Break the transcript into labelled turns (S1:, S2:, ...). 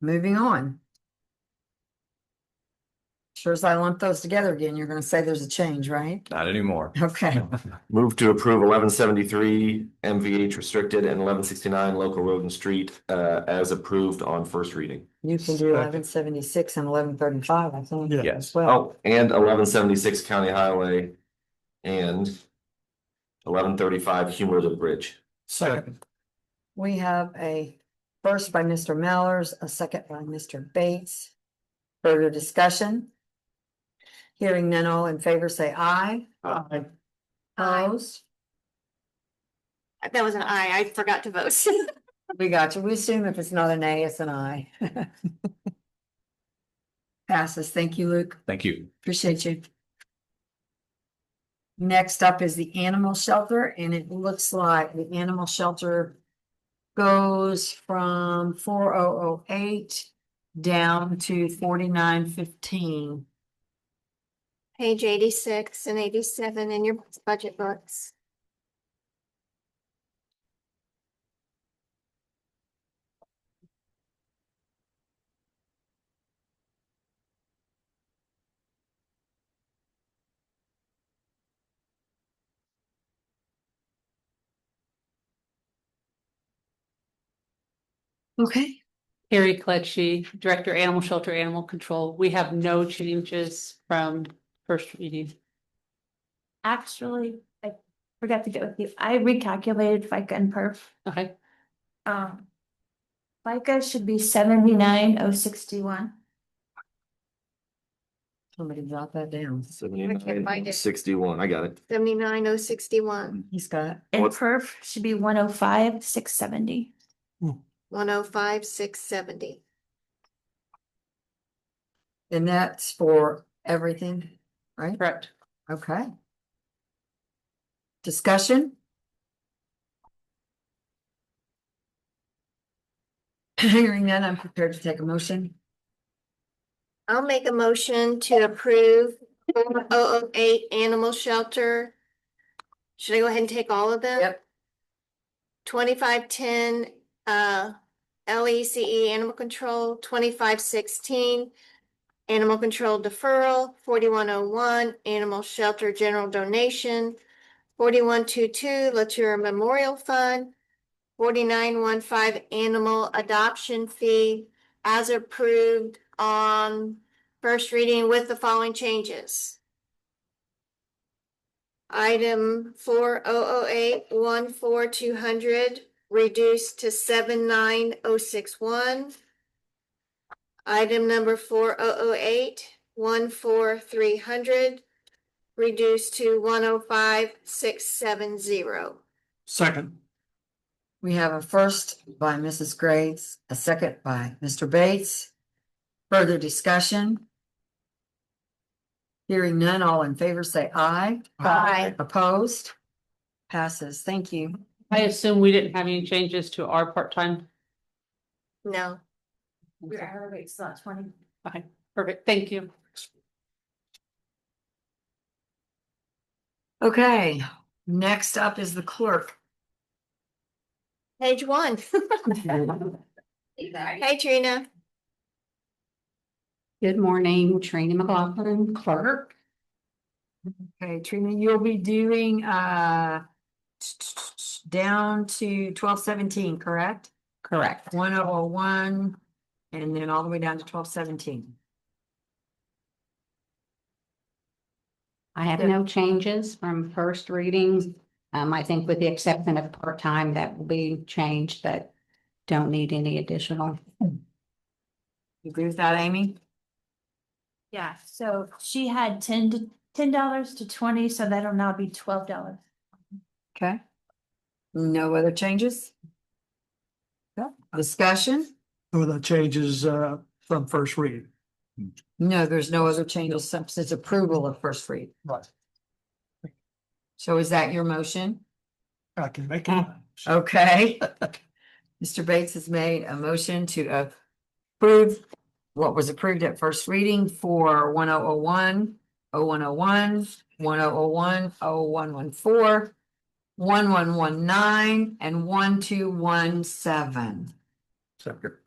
S1: Moving on. Sure as I lump those together again, you're gonna say there's a change, right?
S2: Not anymore.
S1: Okay,
S3: Move to approve eleven seventy-three MVH restricted and eleven sixty-nine local road and street uh as approved on first reading.
S1: you can do eleven seventy-six and eleven thirty-five, I think.
S4: Yeah.
S2: Yes.
S1: as Well,
S3: Oh, and eleven seventy-six county highway and eleven thirty-five cumulative bridge.
S4: Second.
S1: we have a first by Mr. Mallers, a second by Mr. Bates. Further discussion? Hearing none, all in favor, say aye.
S4: Aye.
S5: Aye.
S1: Opposed?
S5: That was an I, I forgot to vote.
S1: We got you. We assume if it's not an A, it's an I. Passes. Thank you, Luke.
S2: Thank you.
S1: Appreciate you. Next up is the animal shelter, and it looks like the animal shelter goes from four oh oh eight down to forty-nine fifteen.
S5: Page eighty-six and eighty-seven in your budget books.
S1: Okay.
S6: Carrie Kletchy, Director, Animal Shelter, Animal Control. We have no changes from first reading.
S7: Actually, I forgot to get with you. I recalculated FICA and perf.
S6: Okay,
S7: Um. FICA should be seventy-nine oh sixty-one.
S1: Somebody jot that down.
S5: find
S3: Seventy-nine
S5: it.
S3: sixty-one, I got it.
S5: Seventy-nine oh sixty-one,
S1: He's got,
S7: And
S3: What's-
S7: perf should be one oh five, six seventy.
S5: one oh five, six seventy.
S1: and that's for everything, right?
S6: correct.
S1: Okay. Discussion? Hearing none, I'm prepared to take a motion.
S5: I'll make a motion to approve four oh oh eight animal shelter. Should I go ahead and take all of them? Twenty-five ten, uh, L E C E animal control, twenty-five sixteen. Animal control deferral, forty-one oh one, animal shelter general donation. Forty-one two two, Latour Memorial Fund. Forty-nine one five, animal adoption fee as approved on first reading with the following changes. Item four oh oh eight one four two hundred reduced to seven nine oh six one. Item number four oh oh eight one four three hundred reduced to one oh five six seven zero.
S4: Second.
S1: We have a first by Mrs. Graves, a second by Mr. Bates. Further discussion? Hearing none, all in favor say aye.
S5: Aye.
S1: Opposed? Passes. Thank you.
S6: I assume we didn't have any changes to our part-time.
S5: No,
S7: Your hour rate's not twenty.
S6: Okay, perfect. Thank you.
S1: Okay, next up is the clerk.
S5: page one. Hey, Trina.
S8: Good morning, Trina McLaughlin, clerk.
S1: Okay, Trina, you'll be doing uh down to twelve seventeen, correct?
S8: Correct.
S1: One oh one, and then all the way down to twelve seventeen.
S8: I have no changes from first readings. Um, I think with the exception of part-time, that will be changed, but don't need any additional.
S1: You agree with that, Amy?
S7: Yeah, so she had ten to, ten dollars to twenty, so that'll now be twelve dollars.
S1: Okay. No other changes? Okay. Discussion?
S4: With the changes uh from first read.
S1: No, there's no other changes since it's approval of first read.
S4: Right.
S1: So is that your motion?
S4: I can make it.
S1: Okay. Mr. Bates has made a motion to approve what was approved at first reading for 1001, 0101, 1001, 0114, 1119, and 1217.
S4: Second.